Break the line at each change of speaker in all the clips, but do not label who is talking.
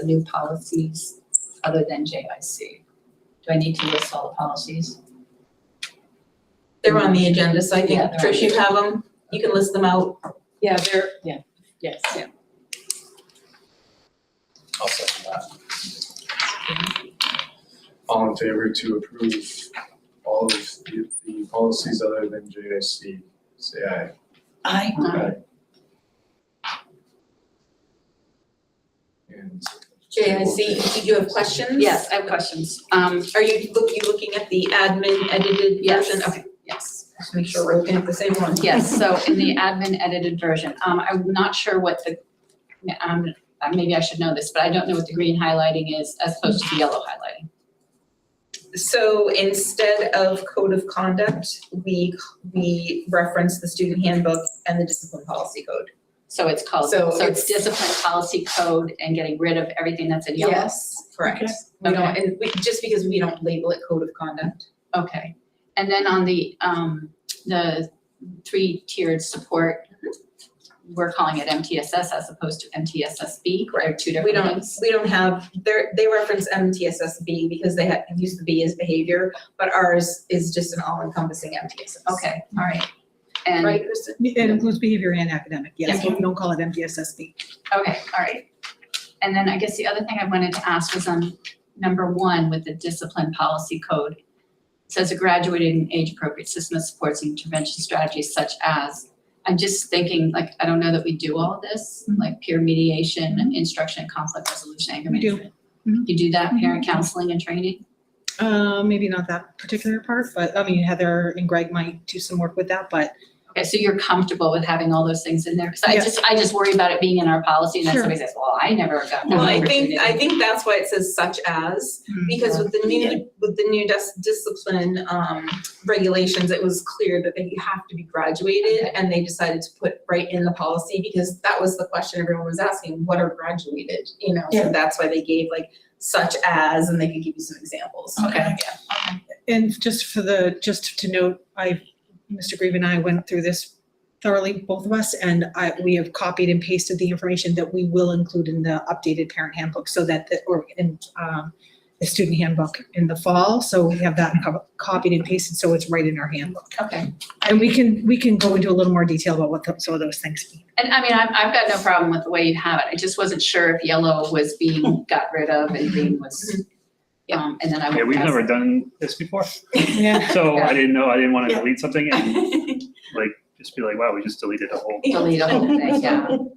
the new policies other than JIC? Do I need to list all the policies?
They're on the agenda, so I think,
Yeah, they're on
Trish,
the
you have them, you can list them out.
Yeah, they're.
Yes.
I'll second that. All in favor to approve all of the, the policies other than JIC, say aye.
I.
And.
JIC, do you have questions?
Yes, I have questions. Um,
Are you, look, you looking at the admin edited
Yes.
version? Okay,
yes,
just make sure we're looking at the same one.
yes, so in the admin edited version, um, I'm not sure what the, um, uh, maybe I should know this, but I don't know what the green highlighting is as opposed to the yellow highlighting.
So instead of code of conduct, we, we reference the student handbook and the discipline policy code.
So it's called, so
So
it's
it's-
discipline policy code and getting rid of everything that's in yellow?
Yes, correct. We don't, and we, just because we don't label it code of conduct.
Okay, and then on the, um, the three-tiered support, we're calling it MTSS as opposed to MTSSB, they're two
We
different
don't,
things.
we don't have, they're, they reference MTSSB because they have, use the B as behavior, but ours is just an all-encompassing MTSS.
Okay, all right, and,
Right, Kristen?
It includes behavior and academic, yes,
Yeah.
but we don't call it MDSSB.
okay, all right. And then I guess the other thing I wanted to ask was on number one with the discipline policy code. It Says a graduated and age-appropriate system that supports intervention strategies such as, I'm just thinking, like, I don't know that we do all this, like peer mediation, instruction, conflict resolution, anger
We do.
management.
Mhm.
You do that, parent counseling and training?
Uh, maybe not that particular part, but I mean Heather and Greg might do some work with that, but
Okay, so you're comfortable with having all those things in there? Because I
Yes.
just, I just worry about it being in our policy and then
Sure.
somebody says, well, I never got that
Well, I
opportunity.
think, I think that's why it says such as,
Hmm.
because with the new, with the new dis- discipline, um, regulations, it was clear that they have to be graduated, and they decided to put right in the policy, because that was the question everyone was asking, what are graduated, you know? So that's why they gave like such as, and they could give you some examples.
Okay.
and just for the, just to note, I, Mr. Grieve and I went through this thoroughly, both of us, and I, we have copied and pasted the information that we will include in the updated parent handbook so that, the or in, um, the student handbook in the fall, so we have that co- copied and pasted, so it's right in our handbook.
Okay.
And we can, we can go into a little more detail about what tho- some of those things mean.
And I mean, I've, I've got no problem with the way you have it. I just wasn't sure if yellow was being got rid of and green was,
Mm-hmm.
um, and then I.
Yeah,
went
we've
past-
never done this before,
Yeah.
so
Yeah.
I didn't know, I didn't wanna
Yeah.
delete something and
Oh.
just be like, wow, we just deleted a whole.
Delete the whole thing, yeah. Well,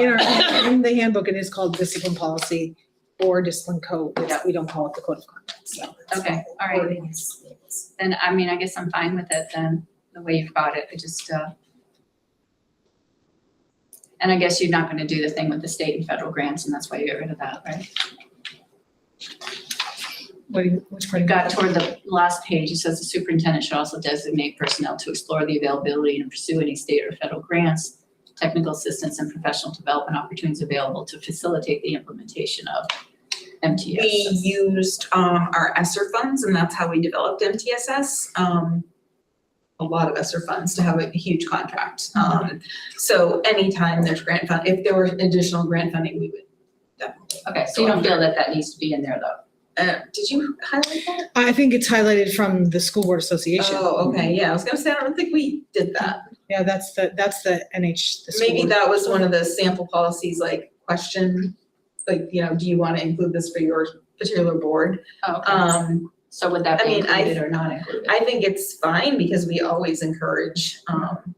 In our, in the handbook, it is called discipline policy or discipline code, It's- we don't call it the code of conduct, so.
Okay, all right. Then, I mean, I guess I'm fine with it then, the way you've got it. I just, uh, and I guess you're not gonna do the thing with the state and federal grants and that's why you get rid of that, right?
What do you, which part?
We've
of
got
that?
toward the last page, it says the superintendent should also designate personnel to explore the availability and pursue any state or federal grants, technical assistance and professional development opportunities available to facilitate the implementation of
We
MTS.
used um our ESSER funds and that's how we developed MTSS. Um a lot of ESSER funds to have a huge contract. Um so anytime there's grant fund, if there were additional grant funding, we would definitely.
Okay, so you don't feel that that needs to be in there though?
Uh did you highlight that?
I think it's highlighted from the school board association.
Oh, okay, yeah, I was gonna say, I don't think we did that.
Yeah, that's the, that's the NH, the school
Maybe
board.
that was one of the sample policies like question, like, you know, do you wanna include this for your particular board?
Okay,
Um
so would that
I
be
mean, I-
included or not included?
I think it's fine because we always encourage um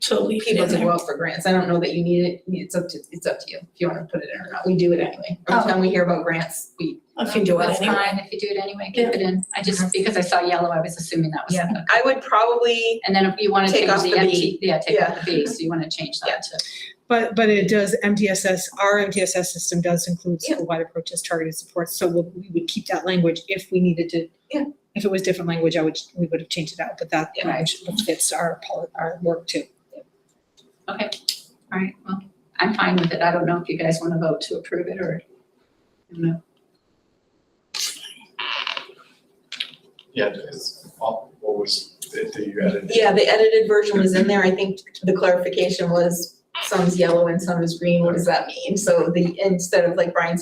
people to go out for grants. I don't know that you need it, it's up to, it's up to you if you wanna put it in or not. We do it anyway. Every
Oh.
time we hear about grants, we,
I can do it
That's
anyway.
fine, if you do it anyway, keep it in. I just, because I saw yellow, I was assuming that was.
yeah. I would probably,
And then if you wanna
Take
change
off
the
the
MT,
B.
yeah, take off the B, so you wanna change that to.
But, but it does MTSS, our MTSS system does include
Yeah.
school-wide approaches, targeted support, so we'll- we would keep that language if we needed to.
Yeah.
If it was different language, I would, we would have changed it out, but that
Yeah.
language fits our, poli- our work too.
All right, well, I'm fine with it. I don't know if you guys want to vote to approve it or, I don't know.
Yeah, it's, all- what was, it that you added?
yeah, the edited version was in there. I think the clarification was some's yellow and some is green. What does that mean? So the, instead of like Brian